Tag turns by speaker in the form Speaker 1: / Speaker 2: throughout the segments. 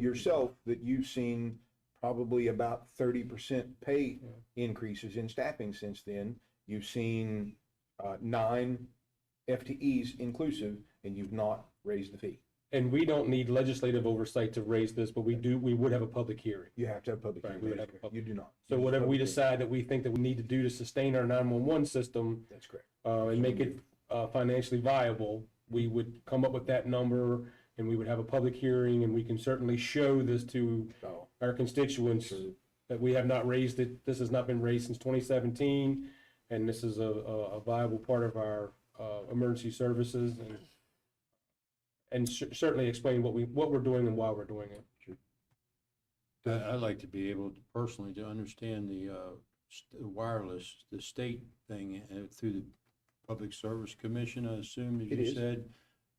Speaker 1: yourself that you've seen probably about thirty percent pay increases in staffing since then. You've seen uh, nine FTEs inclusive, and you've not raised the fee.
Speaker 2: And we don't need legislative oversight to raise this, but we do, we would have a public hearing.
Speaker 1: You have to have public
Speaker 2: Right,
Speaker 1: hearing.
Speaker 2: we would have a
Speaker 1: Commissioner. You
Speaker 2: public-
Speaker 1: do not.
Speaker 2: So
Speaker 1: You just
Speaker 2: whatever
Speaker 1: public
Speaker 2: we
Speaker 1: hearing.
Speaker 2: decide that we think that we need to do to sustain our nine-one-one system,
Speaker 1: That's correct.
Speaker 2: uh, and make it, uh, financially viable, we would come up with that number and we would have a public hearing and we can certainly show this to
Speaker 1: So,
Speaker 2: our constituents that we have not raised it, this has not been raised since twenty seventeen, and this is a, a a viable part of our, uh, emergency services and and cer- certainly explain what we, what we're doing and why we're doing it.
Speaker 3: I'd, I'd like to be able to personally to understand the, uh, st- wireless, the state thing uh, through the Public Service Commission, I assume, as
Speaker 1: It
Speaker 3: you
Speaker 1: is.
Speaker 3: said.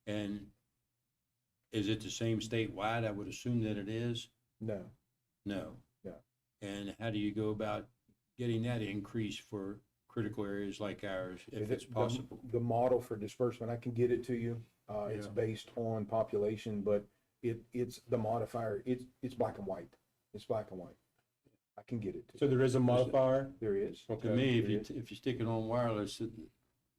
Speaker 3: And is it the same statewide? I would assume that it is.
Speaker 1: No,
Speaker 3: No.
Speaker 1: No.
Speaker 3: And how do you go about getting that increase for critical areas like ours, if
Speaker 1: The-
Speaker 3: it's
Speaker 1: the-
Speaker 3: possible?
Speaker 1: The model for disbursement, I can get it to you. Uh, it's
Speaker 3: Yeah.
Speaker 1: based on population, but it, it's the modifier, it's, it's black and white. It's black and white. I can get it to you.
Speaker 2: So there is a modifier?
Speaker 1: There is.
Speaker 3: To me, if
Speaker 1: it
Speaker 3: you,
Speaker 1: is.
Speaker 3: if you stick it on wireless, it-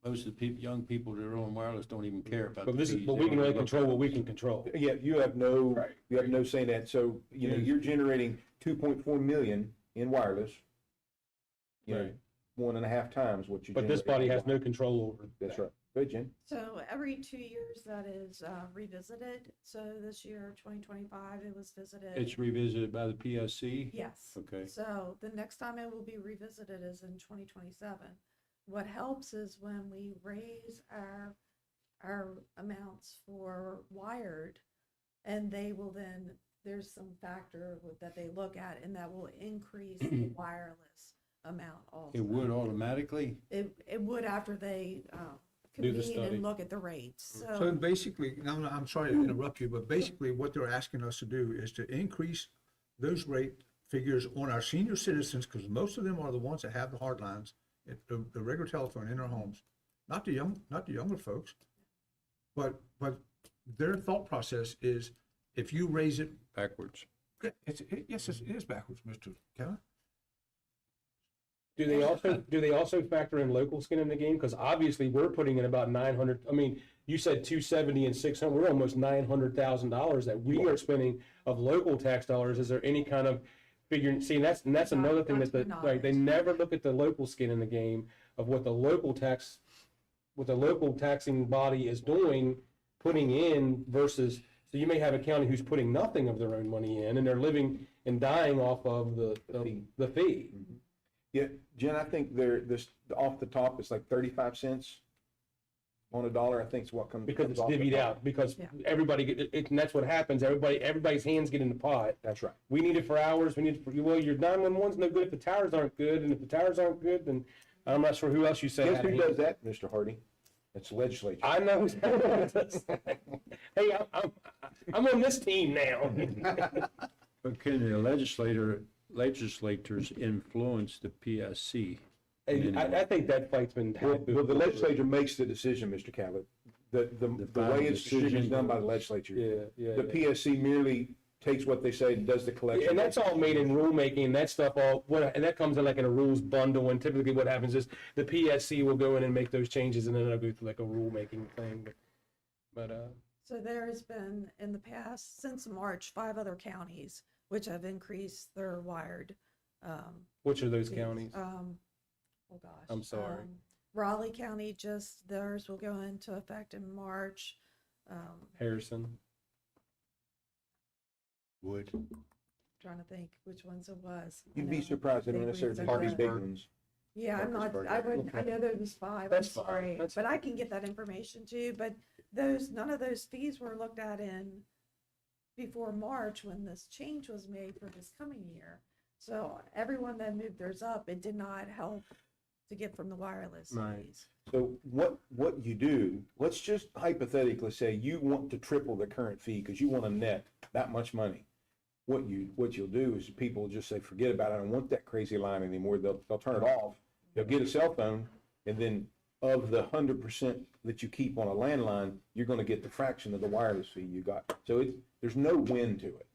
Speaker 3: most of the people, young people that are on wireless don't even care about.
Speaker 2: But
Speaker 3: the
Speaker 2: this is,
Speaker 3: fees.
Speaker 2: but
Speaker 3: They
Speaker 2: we can
Speaker 3: don't
Speaker 2: only
Speaker 3: look-
Speaker 2: control what we can control.
Speaker 1: Yeah, you have no,
Speaker 2: Right.
Speaker 1: you have no say in that. So, you know,
Speaker 3: Yes.
Speaker 1: you're generating two point four million in wireless. You know,
Speaker 2: Right.
Speaker 1: one and a half times what you.
Speaker 2: But this body
Speaker 1: generate in
Speaker 2: has no
Speaker 1: wireless.
Speaker 2: control over.
Speaker 1: That's right. Go ahead, Jen.
Speaker 4: So every two years that is uh, revisited. So this year, twenty twenty-five, it was visited.
Speaker 3: It's revisited by the PSC?
Speaker 4: Yes.
Speaker 3: Okay.
Speaker 4: So the next time it will be revisited is in twenty twenty-seven. What helps is when we raise our, our amounts for wired and they will then, there's some factor with- that they look at and that will increase the wireless amount also.
Speaker 3: It would automatically?
Speaker 4: It, it would after they uh,
Speaker 2: Do the
Speaker 4: convene
Speaker 2: study.
Speaker 4: and look at the rates.
Speaker 5: So basically, no, no, I'm sorry to interrupt you, but basically what they're asking us to do is to increase those rate figures on our senior citizens, because most of them are the ones that have the hard lines, it- the, the regular telephone in their homes, not the young, not the younger folks. But, but their thought process is if you raise it,
Speaker 3: Backwards.
Speaker 5: yeah, it's, it- yes, it's- it is backwards, Mr. Keller.
Speaker 2: Do they also, do they also factor in local skin in the game? Because obviously we're putting in about nine hundred, I mean, you said two seventy and six hundred, we're almost nine hundred thousand dollars that we are spending of local tax dollars. Is there any kind of figuring, see, and that's, and that's
Speaker 4: Not-
Speaker 2: another thing
Speaker 4: not
Speaker 2: that
Speaker 4: to
Speaker 2: the,
Speaker 4: my
Speaker 2: like, they
Speaker 4: knowledge.
Speaker 2: never look at the local skin in the game of what the local tax, what the local taxing body is doing, putting in versus, so you may have a county who's putting nothing of their own money in and they're living and dying off of the,
Speaker 1: The fee.
Speaker 2: the fee.
Speaker 1: Yeah, Jen, I think there, this, off the top, it's like thirty-five cents on a dollar, I think is what comes.
Speaker 2: because
Speaker 1: comes
Speaker 2: it's
Speaker 1: off the
Speaker 2: divvied
Speaker 1: top.
Speaker 2: out, because
Speaker 4: Yeah.
Speaker 2: everybody, get- it- it- and that's what happens, everybody, everybody's hands get in the pot.
Speaker 1: That's right.
Speaker 2: We need it for hours, we need, it for well, your nine-one-one's no good if the towers aren't good, and if the towers aren't good, then I'm not sure who else you say.
Speaker 1: Guess
Speaker 2: had
Speaker 1: who
Speaker 2: hand.
Speaker 1: does that, Mr. Hardy? It's legislature.
Speaker 2: I know. who's- Hey, I'm, I'm, I'm on this team now.
Speaker 3: But can the legislator, legislators influence the PSC?
Speaker 2: And I, I think that fight's been
Speaker 1: Well,
Speaker 2: had.
Speaker 1: well, the legislature makes the decision, Mr. Callett. The, the,
Speaker 3: The
Speaker 1: the way
Speaker 3: final
Speaker 1: it's distributed is
Speaker 3: decision.
Speaker 1: done by the legislature.
Speaker 2: Yeah, yeah.
Speaker 1: The
Speaker 2: yeah.
Speaker 1: PSC merely takes what they say and does the collection.
Speaker 2: And that's all made in rulemaking, and that stuff all, what, and that comes in like in a rules bundle, and typically what happens is the PSC will go in and make those changes, and then it'll go through like a rulemaking thing, but, but, uh,
Speaker 4: So there has been, in the past, since March, five other counties which have increased their wired. um,
Speaker 2: which are those
Speaker 4: fees.
Speaker 2: counties?
Speaker 4: Um, oh gosh.
Speaker 2: I'm sorry.
Speaker 4: um, Raleigh County, just theirs will go into effect in March. Um,
Speaker 2: Harrison,
Speaker 3: Would.
Speaker 4: trying to think which ones it was. I
Speaker 1: You'd be
Speaker 4: know.
Speaker 1: surprised at
Speaker 4: They
Speaker 1: necessarily
Speaker 4: raised
Speaker 1: the
Speaker 4: it
Speaker 1: pretty
Speaker 4: up.
Speaker 1: big ones.
Speaker 4: Yeah, I'm not,
Speaker 1: Parkersburg,
Speaker 4: I wouldn't, I
Speaker 2: okay.
Speaker 4: know there was five, I'm
Speaker 2: That's fine,
Speaker 4: sorry,
Speaker 2: that's
Speaker 4: but I can get that information too, but those, none of those fees were looked at in before March when this change was made for this coming year. So everyone that moved theirs up, it did not help to get from the wireless
Speaker 2: Right.
Speaker 4: fees.
Speaker 1: So what, what you do, let's just hypothetically say you want to triple the current fee because you want to net that much money. What you, what you'll do is people will just say, forget about it. I don't want that crazy line anymore. They'll, they'll turn it off. They'll get a cell phone and then of the hundred percent that you keep on a landline, you're going to get the fraction of the wireless fee you got. So it's, there's no win to it.